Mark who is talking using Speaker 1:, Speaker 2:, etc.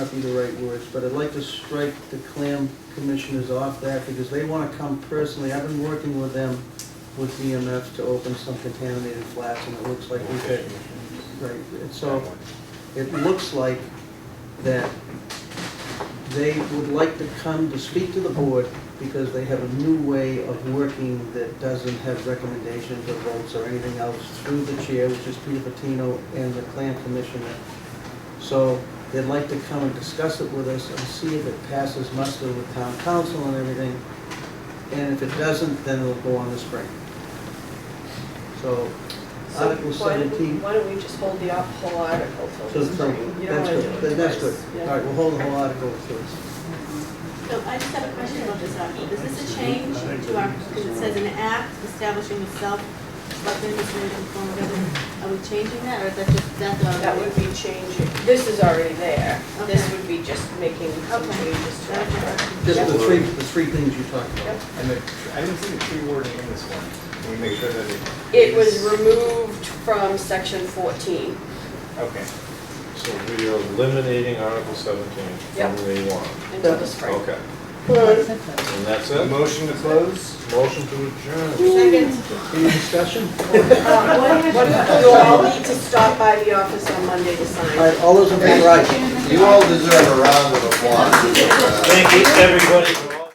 Speaker 1: not be the right words, but I'd like to strike the clam commissioners off that because they want to come personally. I've been working with them with EMF to open some contaminated flats and it looks like we could, right, and so it looks like that they would like to come to speak to the board because they have a new way of working that doesn't have recommendations or votes or anything else through the chair, which is Peter Patino and the clam commissioner. So they'd like to come and discuss it with us and see if it passes muster with town council and everything. And if it doesn't, then it'll go on the spring. So Article
Speaker 2: So Um, why don't we-
Speaker 1: seventeen.
Speaker 2: Why don't we just hold the op- whole article
Speaker 1: So
Speaker 2: till
Speaker 1: it's
Speaker 2: the
Speaker 1: from,
Speaker 2: spring? You don't
Speaker 1: that's
Speaker 2: wanna do it
Speaker 1: good, that's good.
Speaker 2: twice.
Speaker 1: All
Speaker 2: Yeah.
Speaker 1: right, we'll hold the whole article to it.
Speaker 3: So I just have a question about this article. Is this a change to our, because it says an act establishing a self-selected administrative form of government? Are we changing that, or is that just, that's our?
Speaker 2: That would be changing, this is already there. This
Speaker 3: Okay.
Speaker 2: would be just making some
Speaker 3: Okay.
Speaker 2: changes to it.
Speaker 1: Just the
Speaker 4: Yeah.
Speaker 1: three, the three things you talked about.
Speaker 2: Yep.
Speaker 4: And the, I didn't see the tree warden in this one. Can we make sure that it?
Speaker 2: It was
Speaker 4: is-
Speaker 2: removed from section 14.
Speaker 4: Okay.
Speaker 5: So we are eliminating Article 17
Speaker 2: Yep.
Speaker 5: from the warrant.
Speaker 2: until the spring.
Speaker 5: Okay, and that's it?
Speaker 4: Motion to close?
Speaker 5: Motion to adjourn.
Speaker 3: Second.
Speaker 1: Any discussion?
Speaker 2: Um, uh, what- You'll all need to stop by the office on Monday to
Speaker 1: All
Speaker 2: sign.
Speaker 1: right, all those in favor, aye.
Speaker 4: You all deserve a round of applause.
Speaker 5: Thank you, everybody, for